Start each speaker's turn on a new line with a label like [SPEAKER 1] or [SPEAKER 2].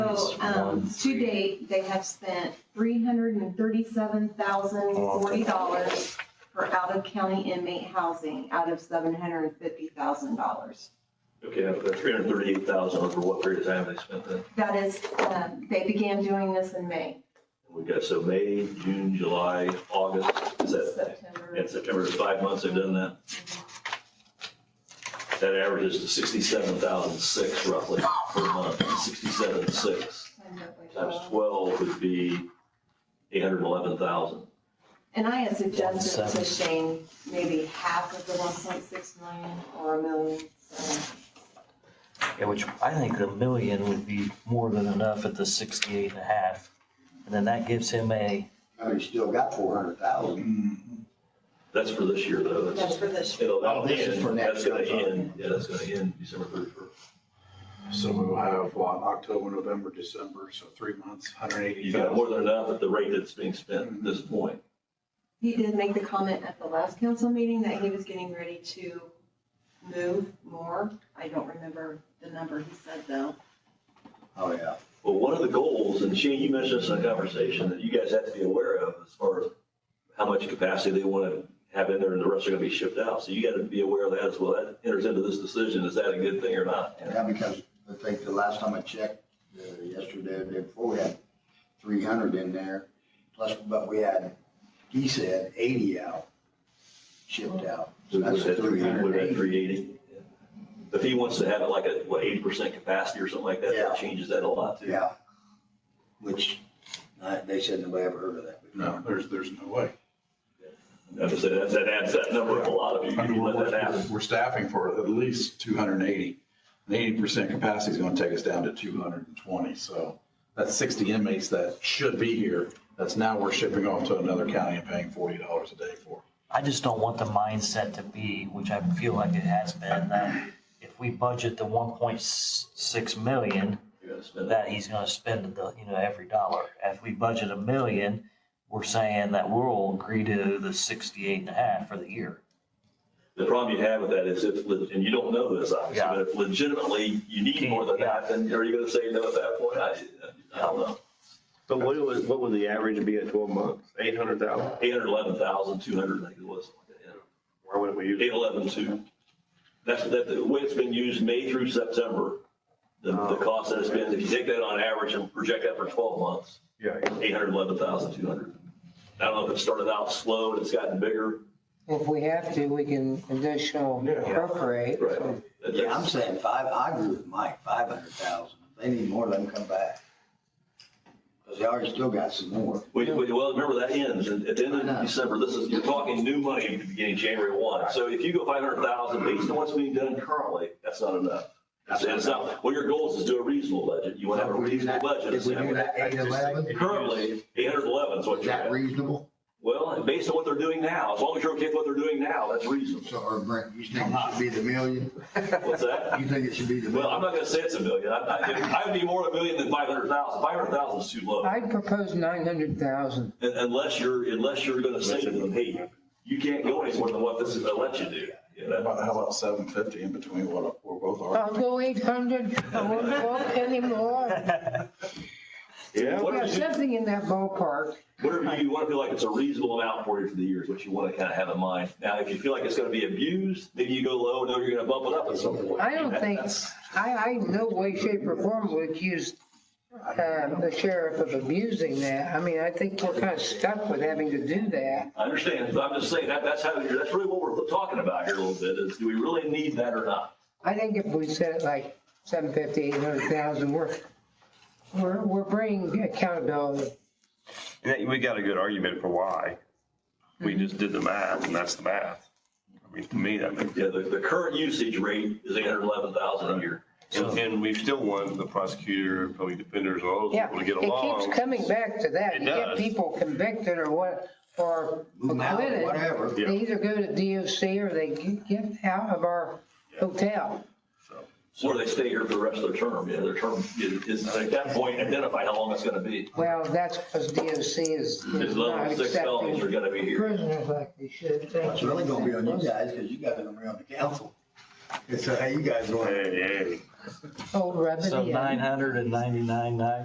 [SPEAKER 1] So, um, to date, they have spent three hundred and thirty-seven thousand forty dollars for out-of-county inmate housing out of seven hundred and fifty thousand dollars.
[SPEAKER 2] Okay, but three hundred thirty-eight thousand over what period of time they spent that?
[SPEAKER 1] That is, um, they began doing this in May,
[SPEAKER 2] We've got so May, June, July, August, is that,
[SPEAKER 1] September.
[SPEAKER 2] and September is five months they've done that? That averages to sixty-seven thousand six roughly per month, sixty-seven six times twelve would be eight hundred and eleven thousand.
[SPEAKER 1] And I had suggested to
[SPEAKER 3] Seven.
[SPEAKER 1] Shane maybe half of the one point six million or a million, so,
[SPEAKER 3] Yeah, which I think the million would be more than enough at the sixty-eight and a half. And then that gives him a,
[SPEAKER 4] I mean, you still got four hundred thousand.
[SPEAKER 2] That's for this year though,
[SPEAKER 1] that's
[SPEAKER 2] that's,
[SPEAKER 1] for this year.
[SPEAKER 2] it'll, that'll
[SPEAKER 4] Oh, this is
[SPEAKER 2] end,
[SPEAKER 4] for
[SPEAKER 2] that's
[SPEAKER 4] next
[SPEAKER 2] gonna
[SPEAKER 4] year.
[SPEAKER 2] end, yeah, that's gonna end December thirty-first.
[SPEAKER 5] So we'll have, what, October, November, December, so three months, hundred eighty
[SPEAKER 2] You've got more
[SPEAKER 5] thousand.
[SPEAKER 2] than enough at the rate that's being spent at this point.
[SPEAKER 1] He did make the comment at the last council meeting that he was getting ready to move more. I don't remember the number he said though.
[SPEAKER 4] Oh, yeah.
[SPEAKER 2] Well, one of the goals, and Shane, you mentioned this in a conversation that you guys have to be aware of as far as how much capacity they want to have in there and the rest are going to be shipped out. So you got to be aware of that as well. That enters into this decision. Is that a good thing or not?
[SPEAKER 4] Yeah, because I think the last time I checked, uh, yesterday, or the day before, we had three hundred in there. Plus, but we had, he said eighty out, shipped out. So that's three hundred and eighty.
[SPEAKER 2] Three eighty. If he wants to have it like a, what, eighty percent capacity or something like that,
[SPEAKER 4] Yeah.
[SPEAKER 2] that changes that a lot too.
[SPEAKER 4] Yeah. Which, uh, they said nobody ever heard of that before.
[SPEAKER 5] No, there's, there's no way.
[SPEAKER 2] I have to say, that, that adds that number up a lot if you,
[SPEAKER 5] I
[SPEAKER 2] if
[SPEAKER 5] mean,
[SPEAKER 2] you
[SPEAKER 5] we're,
[SPEAKER 2] let that
[SPEAKER 5] we're-
[SPEAKER 2] happen.
[SPEAKER 5] we're staffing for at least two hundred and eighty. And eighty percent capacity is gonna take us down to two hundred and twenty, so that's sixty inmates that should be here. That's now we're shipping off to another county and paying forty dollars a day for.
[SPEAKER 3] I just don't want the mindset to be, which I feel like it has been, that if we budget the one point six million,
[SPEAKER 2] You're gonna spend that.
[SPEAKER 3] that he's gonna spend the, you know, every dollar. If we budget a million, we're saying that we'll agree to the sixty-eight and a half for the year.
[SPEAKER 2] The problem you have with that is if, le- and you don't know this obviously,
[SPEAKER 3] Yeah.
[SPEAKER 2] but if legitimately you need more than that, then are you going to say no at that point? I, I don't know.
[SPEAKER 6] But what would, what would the average be at twelve months? Eight hundred thousand?
[SPEAKER 2] Eight hundred eleven thousand two hundred, I think it was.
[SPEAKER 6] Why wouldn't we use?
[SPEAKER 2] Eight eleven two. That's, that, the way it's been used, May through September, the, the cost that it's been, if you take that on average and project that for twelve months,
[SPEAKER 6] Yeah,
[SPEAKER 2] eight hundred eleven thousand two hundred. I don't know if it started out slow and it's gotten bigger.
[SPEAKER 7] If we have to, we can additional
[SPEAKER 5] Yeah.
[SPEAKER 7] appropriate.
[SPEAKER 2] Right.
[SPEAKER 4] Yeah, I'm saying five, I agree with Mike, five hundred thousand. If they need more, let them come back. Cause they already still got some more.
[SPEAKER 2] We, we, well, remember that ends at at the end
[SPEAKER 4] I
[SPEAKER 2] of
[SPEAKER 4] know.
[SPEAKER 2] December. This is, you're talking new money at the beginning of January one. So if you go five hundred thousand based on what's being done currently, that's not enough. It's it's not, well, your goal is to do a reasonable budget. You want to have a
[SPEAKER 4] If we do
[SPEAKER 2] reasonable
[SPEAKER 4] that-
[SPEAKER 2] budget.
[SPEAKER 4] If we do that eight eleven,
[SPEAKER 2] Currently, eight hundred eleven is what
[SPEAKER 4] is
[SPEAKER 2] you're
[SPEAKER 4] that
[SPEAKER 2] at.
[SPEAKER 4] reasonable?
[SPEAKER 2] Well, and based on what they're doing now, as long as you're okay with what they're doing now, that's reasonable.
[SPEAKER 4] So, or Brent, you think it should be the million?
[SPEAKER 2] What's that?
[SPEAKER 4] You think it should be the
[SPEAKER 2] Well, I'm
[SPEAKER 4] million?
[SPEAKER 2] not gonna say it's a million. I, I, I would be more a million than five hundred thousand. Five hundred thousand is too low.
[SPEAKER 7] I'd propose nine hundred thousand.
[SPEAKER 2] Un- Unless you're, unless you're gonna say to them, hey, you can't go any more than what this is gonna let you do. You
[SPEAKER 5] How
[SPEAKER 2] know?
[SPEAKER 5] about, how about seven fifty in between what we're both
[SPEAKER 7] I'll
[SPEAKER 5] arguing?
[SPEAKER 7] go eight hundred, I won't go up anymore.
[SPEAKER 6] yeah.
[SPEAKER 2] What
[SPEAKER 7] Yeah,
[SPEAKER 2] do you-
[SPEAKER 7] something in that ballpark.
[SPEAKER 2] Whatever you, you want to feel like it's a reasonable amount for you for the year is what you want to kind of have in mind. Now, if you feel like it's going to be abused, maybe you go low and know you're going to bump it up at some point.
[SPEAKER 7] I don't think,
[SPEAKER 2] That's-
[SPEAKER 7] I, I in no way, shape or form would accuse uh, the sheriff of abusing that. I mean, I think we're kind of stuck with having to do that.
[SPEAKER 2] I understand, but I'm just saying that, that's how, that's really what we're talking about here a little bit is do we really need that or not?
[SPEAKER 7] I think if we set it like seven fifty, eight hundred thousand, we're, we're, we're bringing accountability.
[SPEAKER 6] Yeah, We got a good argument for why. We
[SPEAKER 7] Mm-hmm.
[SPEAKER 6] just did the math and that's the math. I mean, to me, that makes.
[SPEAKER 2] Yeah, the, the current usage rate is eight hundred eleven thousand a year.
[SPEAKER 6] And, and we still want the prosecutor, public defenders, all those
[SPEAKER 7] Yeah,
[SPEAKER 6] people to get
[SPEAKER 7] it
[SPEAKER 6] along.
[SPEAKER 7] keeps coming back to that.
[SPEAKER 6] It
[SPEAKER 7] You get
[SPEAKER 6] does.
[SPEAKER 7] people convicted or what, or
[SPEAKER 4] Move them out,
[SPEAKER 7] acquitted.
[SPEAKER 4] whatever.
[SPEAKER 7] They either go to DOC or they get- get out of our hotel.
[SPEAKER 6] So,
[SPEAKER 2] Or they stay here for the rest of their term, yeah, their term is, is at that point identify how long it's going to be.
[SPEAKER 7] Well, that's because DOC is
[SPEAKER 2] His
[SPEAKER 7] is not
[SPEAKER 2] level six felonies are
[SPEAKER 7] accepting
[SPEAKER 2] going to be here.
[SPEAKER 7] prisoners like they should.
[SPEAKER 4] It's really gonna be on you guys, cause you guys are gonna be on the council. It's, uh, hey, you guys want.
[SPEAKER 6] Hey, hey.
[SPEAKER 7] Oh, rub it
[SPEAKER 3] So
[SPEAKER 7] in.
[SPEAKER 3] nine hundred and ninety-nine, nine